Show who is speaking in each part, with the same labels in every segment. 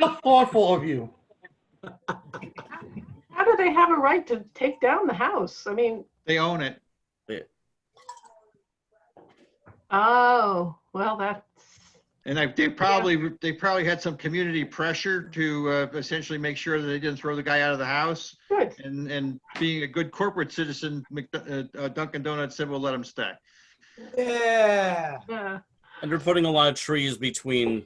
Speaker 1: How thoughtful of you.
Speaker 2: How do they have a right to take down the house? I mean,
Speaker 3: They own it.
Speaker 2: oh, well, that's,
Speaker 3: And I- they probably, they probably had some community pressure to uh, essentially make sure that they didn't throw the guy out of the house.
Speaker 2: good.
Speaker 3: And, and being a good corporate citizen, Mc- uh, uh, Dunkin' Donuts said, we'll let him stay.
Speaker 4: Yeah.
Speaker 2: Yeah.
Speaker 5: And they're putting a lot of trees between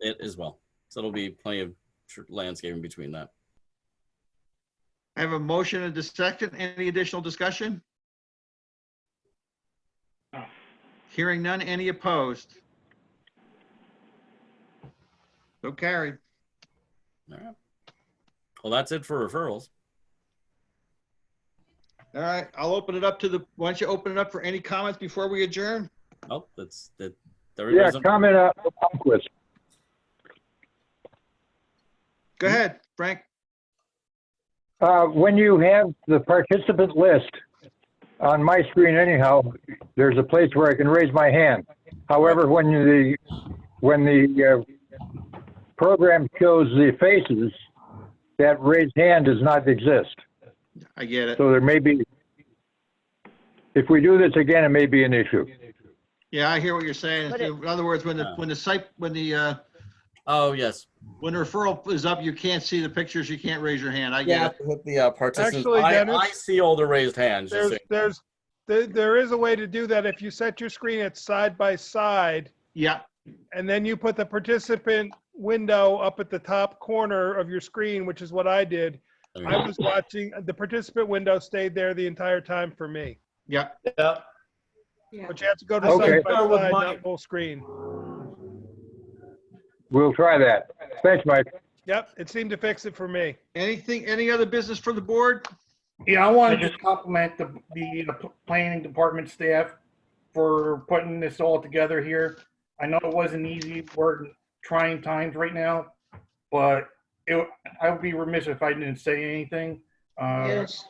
Speaker 5: it as well. So it'll be plenty of tr- landscaping between that.
Speaker 3: I have a motion and a second. Any additional discussion? Hearing none, any opposed? So carried.
Speaker 5: All right. Well, that's it for referrals.
Speaker 3: All right, I'll open it up to the, why don't you open it up for any comments before we adjourn?
Speaker 5: Oh, that's that.
Speaker 6: Yeah,
Speaker 5: everybody's on-
Speaker 6: comment on the Palmquist.
Speaker 3: Go ahead, Frank.
Speaker 6: Uh, when you have the participant list on my screen anyhow, there's a place where I can raise my hand. However, when the, when the, uh, program shows the faces, that raised hand does not exist.
Speaker 3: I get it.
Speaker 6: So there may be, if we do this again, it may be an issue.
Speaker 3: Yeah, I hear what you're saying.
Speaker 7: But it-
Speaker 3: In other words, when the, when the site, when the, uh,
Speaker 5: Oh, yes.
Speaker 3: when the referral is up, you can't see the pictures, you can't raise your hand. I
Speaker 5: Yeah,
Speaker 3: get it.
Speaker 5: to hit the uh, participants.
Speaker 8: Actually,
Speaker 5: I,
Speaker 8: Dennis,
Speaker 5: I see all the raised hands. just
Speaker 8: There's,
Speaker 5: so-
Speaker 8: there's, there, there is a way to do that. If you set your screen at side by side
Speaker 3: Yeah,
Speaker 8: and then you put the participant window up at the top corner of your screen, which is what I did.
Speaker 5: there we
Speaker 8: I
Speaker 5: go.
Speaker 8: was watching, the participant window stayed there the entire time for me.
Speaker 3: yeah.
Speaker 4: Yeah.
Speaker 8: But you have to go to
Speaker 6: Okay.
Speaker 8: side by
Speaker 4: Start with
Speaker 8: side,
Speaker 4: mine.
Speaker 8: not full screen.
Speaker 6: We'll try that. Thanks, Mike.
Speaker 8: Yep, it seemed to fix it for me.
Speaker 3: Anything, any other business for the board?
Speaker 1: Yeah, I want to just compliment the, the the p- planning department staff for putting this all together here. I know it wasn't easy, we're in trying times right now, but it, I would be remiss if I didn't say anything. Uh,
Speaker 2: Yes.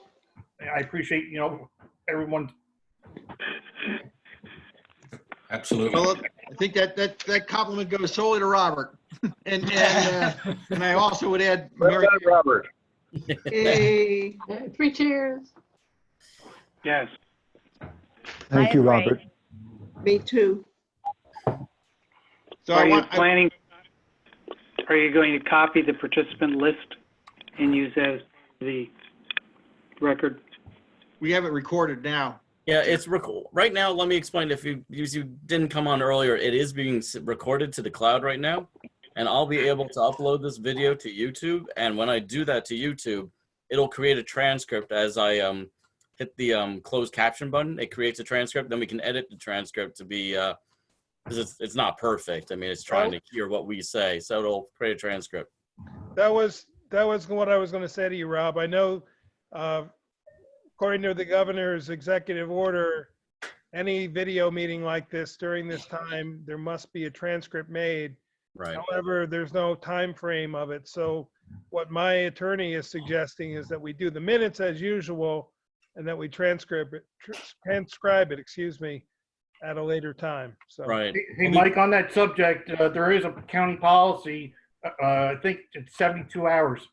Speaker 1: I appreciate, you know, everyone,
Speaker 3: Well, I think that, that, that compliment goes solely to Robert. And, and, uh, and I also would add,
Speaker 6: Well
Speaker 3: Mary,
Speaker 6: done, Robert.
Speaker 2: Yeah, Three cheers.
Speaker 1: yes.
Speaker 7: Thank you, Robert.
Speaker 9: Me too.
Speaker 3: so I
Speaker 10: Are you
Speaker 3: want, I-
Speaker 10: planning, are you going to copy the participant list and use that as the record?
Speaker 3: we have it recorded now.
Speaker 5: Yeah, it's reco- right now. Let me explain. If you if you didn't come on earlier, it is being s- recorded to the cloud right now, and I'll be able to upload this video to YouTube. And when I do that to YouTube, it'll create a transcript as I um hit the um closed caption button. It creates a transcript. Then we can edit the transcript to be uh, 'cause it's it's not perfect. I mean, it's trying to hear what we say, so it'll create a transcript.
Speaker 8: That was, that was what I was going to say to you, Rob. I know, uh, according to the governor's executive order, any video meeting like this during this time, there must be a transcript made.
Speaker 5: Right.
Speaker 8: However, there's no time frame of it. So what my attorney is suggesting is that we do the minutes as usual and that we transcribe it, tr- transcribe it, excuse me, at a later time. So.
Speaker 5: Right.
Speaker 1: Hey, Mike, on that subject, uh, there is a county policy, uh, I think it's 72 hours.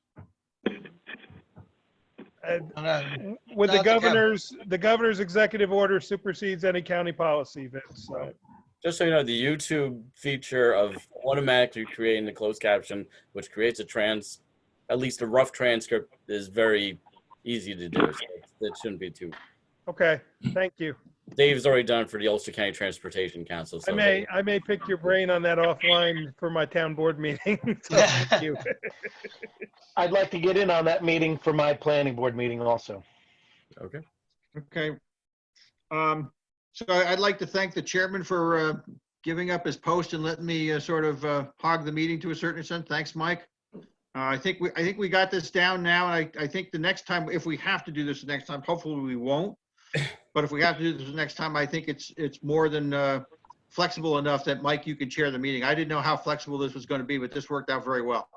Speaker 8: Uh,
Speaker 3: And, uh,
Speaker 8: With the
Speaker 3: Not the governor.
Speaker 8: governor's, the governor's executive order supersedes any county policy, Vince. So
Speaker 5: Just so you know, the YouTube feature of automatically creating the closed caption, which creates a trans, at least a rough transcript, is very easy to do. So it shouldn't be too.
Speaker 8: Okay, thank you.
Speaker 5: Dave's already done it for the Ulster County Transportation Council.
Speaker 8: I
Speaker 5: So
Speaker 8: may, I may pick your brain on that offline for my town board meeting. So thank you.
Speaker 4: I'd like to get in on that meeting for my planning board meeting also.
Speaker 5: Okay.
Speaker 3: Okay. Um, so I- I'd like to thank the chairman for, uh, giving up his post and letting me, uh, sort of, uh, hog the meeting to a certain extent. Thanks, Mike. Uh, I think we, I think we got this down now, and I, I think the next time, if we have to do this the next time, hopefully we won't. But if we have to do this the next time, I think it's, it's more than, uh, flexible enough that, Mike, you can chair the meeting. I didn't know how flexible this was gonna be, but this worked out very well.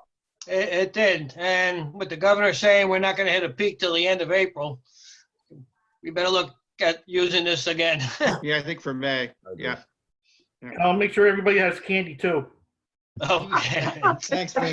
Speaker 4: It, it did. And with the governor saying we're not going to hit a peak till the end of April, we better look at using this again.
Speaker 3: Yeah, I think for May,
Speaker 5: agree.
Speaker 3: yeah.
Speaker 1: I'll make sure everybody has candy too.
Speaker 4: Okay.
Speaker 3: Thanks, man.